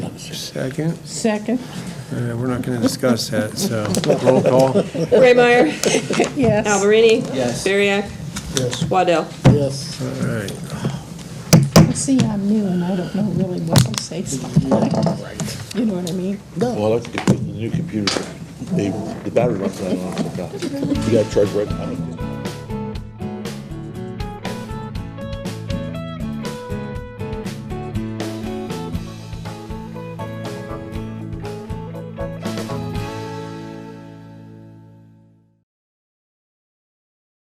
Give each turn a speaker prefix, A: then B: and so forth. A: second?
B: Second,
A: Uh, We're not going to discuss that, so roll call.
C: Raymeyer,
B: yes.
C: Alberini.
D: Yes.
C: Bariak,
D: Yes.
C: Waddell.
D: Yes.
A: All right.
B: See, I'm new and I don't know really what to say sometimes. You know what I mean?
D: No.
E: Well, that's because the new computer, they, the battery runs out on it. You gotta charge right now.